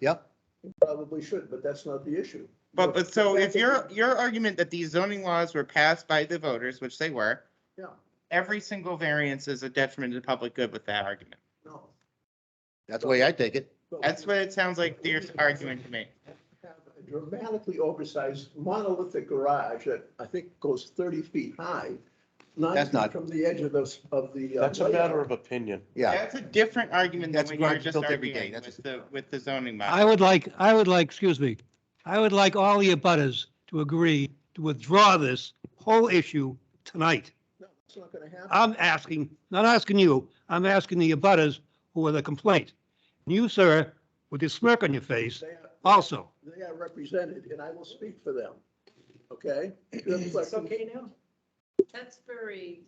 Yep. Probably should, but that's not the issue. But, but so if your, you're your argument that these zoning laws were passed by the voters, which they were. Yeah. Every single variance is a detriment to the public good with that argument. No. That's the way I take it. but we That's what it sounds like your argument to me. have a Dramatically oversized monolithic garage that I think goes thirty feet high. That's not- From the edge of those, of the. uh, That's a matter of opinion. Yeah. That's a different argument than That's what you were garage just built every day. arguing That's with the, with the zoning I bylaw. would like, I would like, excuse me, I would like all the abutters to agree to withdraw this whole issue tonight. No, It's not gonna happen. I'm asking, not asking you, I'm asking the abutters who are the complaint. And You, sir, with your smirk on your face, They are- also. They are represented and I will speak for them. Okay? That's okay now? That's very,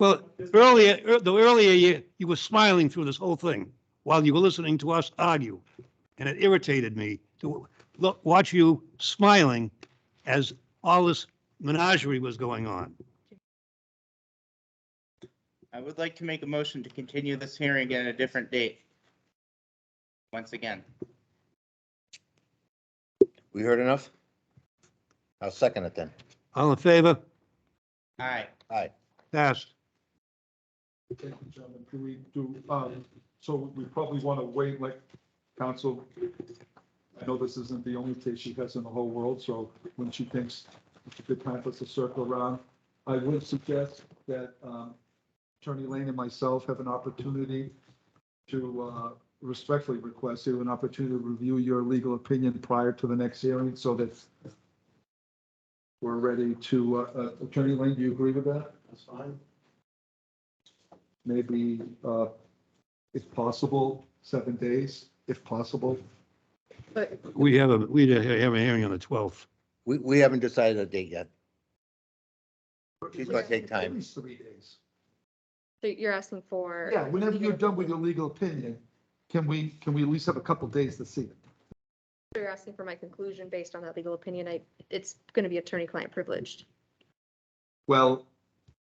Well, earlier, ear- the earlier you, you were smiling through this whole thing while you were listening to us argue. And it irritated me to look, watch you smiling as all this menagerie was going on. I would like to make a motion to continue this hearing at a different date. Once again, We heard enough? I'll second it then. All in favor? aye. Aye. Passed. Thank you, gentlemen. Do we do, um, so we probably want to wait, like, council. I know this isn't the only case she has in the whole world, so when she thinks it's a good time for us to circle around, I would suggest that, um, Attorney Lane and myself have an opportunity to, uh, respectfully request you an opportunity to review your legal opinion prior to the next hearing, so that we're ready to, uh, uh, Attorney Lane, do you agree with that? That's fine. maybe, uh, if possible, seven days, if possible. but We have a, we have a hearing on the 12th. We, we haven't decided a date yet. She's gonna take At time. least three days. so you're asking for. Yeah, whenever you're done with your legal opinion, can we, can we at least have a couple days to see it? You're asking for my conclusion based on that legal opinion. I, it's going to be attorney-client privileged. Well,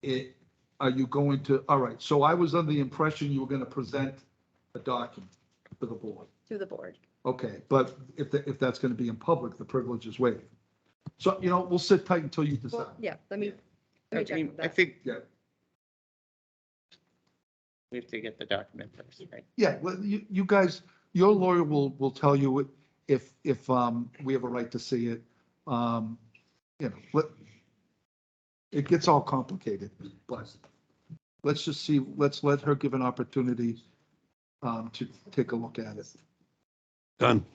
it, are you going to, all right, so I was under the impression you were gonna present a document to the board. to the board. Okay, but if, the- if that's gonna be in public, the privilege is waived. So, you know, we'll sit tight until you decide. Well, yeah, let me, I let me check mean, with I that. think Yeah. we have to get the document first, right? Yeah, well, you, you guys, your lawyer will, will tell you if, if, um, we have a right to see it. Um, you know, let, it gets all complicated, but let's just see, let's let her give an opportunity, um, to take a look at it. Done.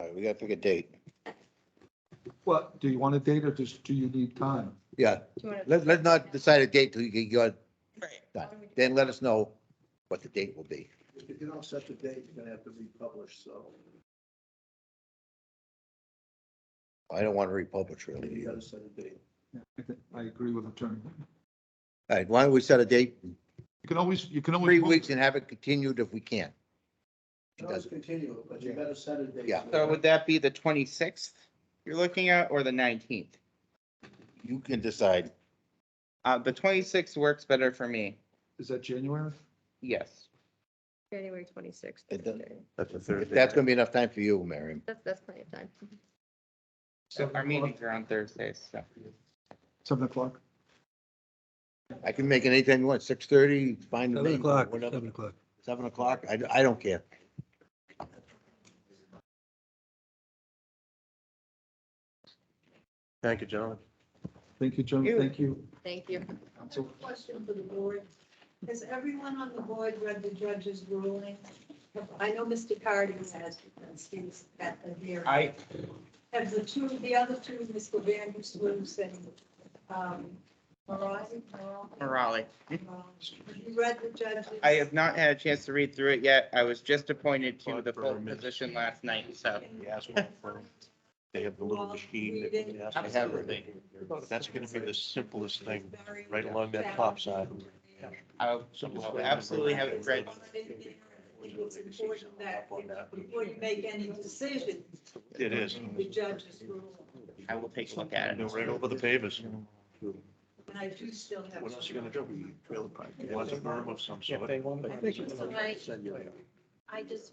All right, we gotta pick a date. What, do you want a date or just, do you need time? Yeah, Do you wanna- let, let's not decide a date till you get your, Right. done. Then let us know what the date will be. If you don't set the date, you're gonna have to republish, so I don't want to republish really. you All gotta set a date. I think- I agree with attorney. right, why don't we set a date in You can always, you can always. three move- weeks and have it continued if we can? You It can always doesn't, continue, it, but you better set a date. Yeah. So would that be the twenty-sixth you're looking at or the nineteenth? you can decide. Uh, the twenty-sixth works better for me, Is that January? yes. January twenty-sixth. It doesn't- That's, That's a If that's gonna be enough time for you, Marion. that's plenty of time. So our Seven meetings o'clock? are on Thursdays, so. Seven o'clock? I can make it anytime you want, six thirty, fine with me. 7 o'clock, Whatever. 7 o'clock. Seven o'clock, I, I don't care. Thank you, gentlemen. Thank you, John. Thank you. Thank you. Counsel. Question for the board. Has everyone on the board read the judge's ruling? I know Mr. Cardy has, because he was at the hearing. I, Have the two, the other two, Mr. Van Sloos and um, Marai? Marai? Morale, Marai. Have you read the judge's? I have not had a chance to read through it yet. I was just appointed to the full Confirm it. position last night, so. You ask them for, they have the little machine that we ask. them for. Absolutely. That's gonna be the simplest thing, Very- right along that top side. I'll I'll absolutely have it read. It's important that before you make any decision, It is. the judge's ruling. I will take a look at Go it. right over the pavers. And I do still have. What else you gonna do? Trailer park. It was a berm of some sort. I I just